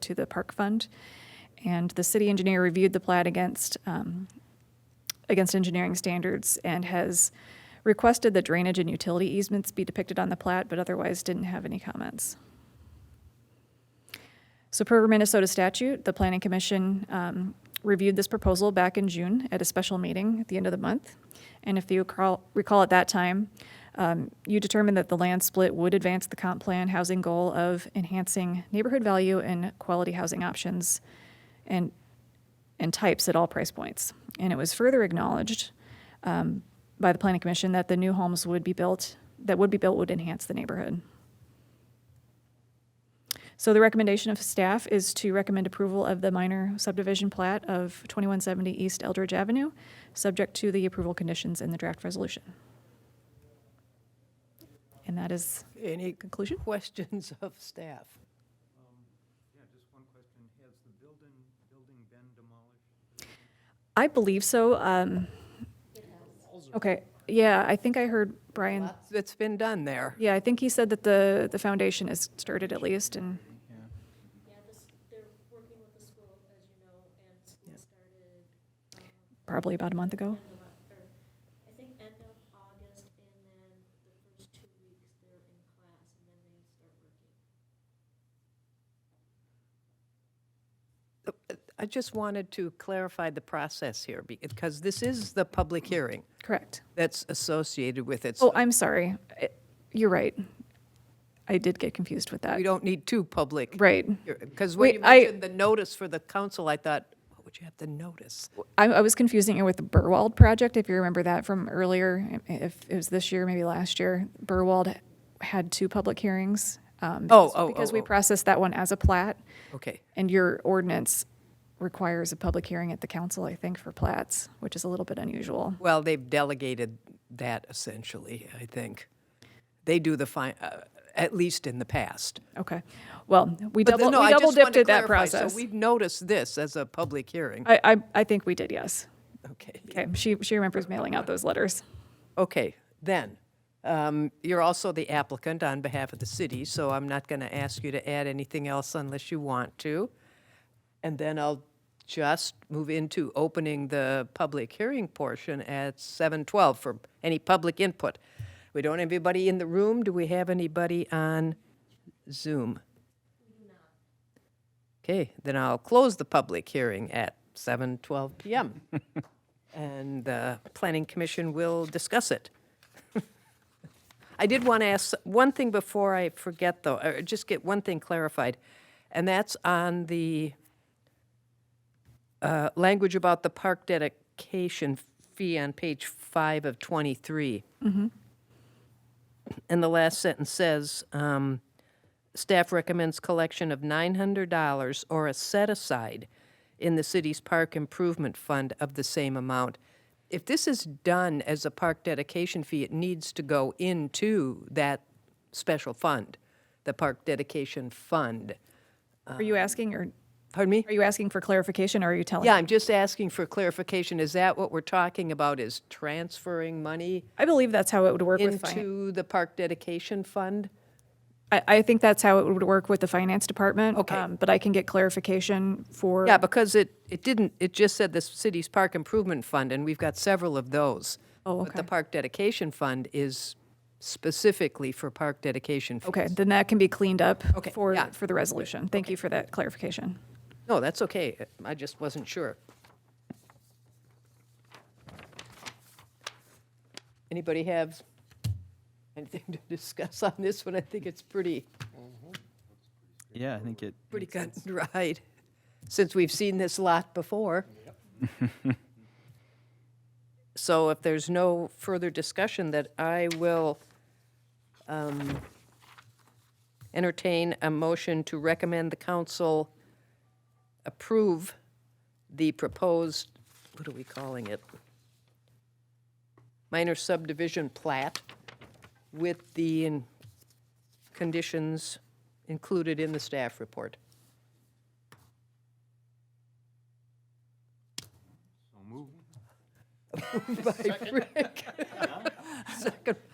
to the park fund. And the city engineer reviewed the plat against, um, against engineering standards and has requested that drainage and utility easements be depicted on the plat, but otherwise didn't have any comments. So per Minnesota statute, the planning commission um, reviewed this proposal back in June at a special meeting at the end of the month. And if you recall- recall at that time, um, you determined that the land split would advance the comp plan housing goal of enhancing neighborhood value and quality housing options and, and types at all price points. And it was further acknowledged um, by the planning commission that the new homes would be built, that would be built would enhance the neighborhood. So the recommendation of staff is to recommend approval of the minor subdivision plat of 2170 East Eldridge Avenue, subject to the approval conditions in the draft resolution. And that is, Any Conclusion? Questions of staff? Yeah, just one question. Has the building, building been demolished? I believe so. um, Okay, yeah, I think I heard Brian, That's been done there. yeah, I think he said that the, the foundation is started at least, and, Yeah, this, they're working with the school, as you know, and school started, um, Probably about a month ago. end of Oc- or, I think end of August, and then the first two weeks they're in class, and then they start working. I just wanted to clarify the process here, because this is the public hearing correct. that's associated with it. Oh, so I'm sorry. I- You're right. I did get confused with that. We don't need two public. Right. Because when Wait, you I- mentioned the notice for the council, I thought, what would you have to notice? I, I was confusing it with the Burwald project, if you remember that from earlier, i- if it was this year, maybe last year. Burwald had two public hearings. um, Oh, because- oh, Because oh, we oh. processed that one as a plat, Okay, and your ordinance requires a public hearing at the council, I think, for plats, which is a little bit unusual. well, they've delegated that essentially, I think. They do the fine, at least in the past. Okay, well, we But the- double, no, we I just double dipped wanted to at that clarify, so process. We've noticed this as a public hearing. I, I, I think we did, yes. Okay. Okay, she, she remembers mailing out those letters. Okay, then, um, you're also the applicant on behalf of the city, so I'm not going to ask you to add anything else unless you want to. And then I'll just move into opening the public hearing portion at 7:12 for any public input. We don't have anybody in the room. Do we have anybody on Zoom? Okay, then I'll close the public hearing at 7:12 PM. And the Planning Commission will discuss it. I did want to ask one thing before I forget, though, or just get one thing clarified, and that's on the uh, language about the park dedication fee on page five of 23. And the last sentence says, um, staff recommends collection of $900 or a set-aside in the city's park improvement fund of the same amount. If this is done as a park dedication fee, it needs to go into that special fund, the park dedication fund. Are you asking, or Pardon me? are you asking for clarification, or are you telling? Um, Yeah, I'm just asking for clarification. Is that what we're talking about, is transferring money I believe that's how it would work with finance. into the park dedication fund? I, I think that's how it would work with the finance department. Okay. um, But I can get clarification for. Yeah, because it, it didn't, it just said the city's park improvement fund, and we've got several of those. Oh, But the okay. park dedication fund is specifically for park dedication. fees. Okay, then that can be cleaned up Okay, for, yeah. for the resolution. Thank you for that clarification. No, that's okay. I just wasn't sure. Anybody have anything to discuss on this one? I think it's pretty, Yeah, I think it. pretty cut and dried, since we've seen this lot before. So if there's no further discussion, that I will um, entertain a motion to recommend the council approve the proposed, what are we calling it? Minor subdivision plat with the in- conditions included in the staff report. So moved.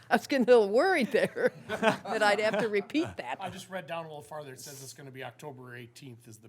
I was getting a little worried there, that I'd have to repeat that. I just read down a little farther. It says it's going to be October 18th is the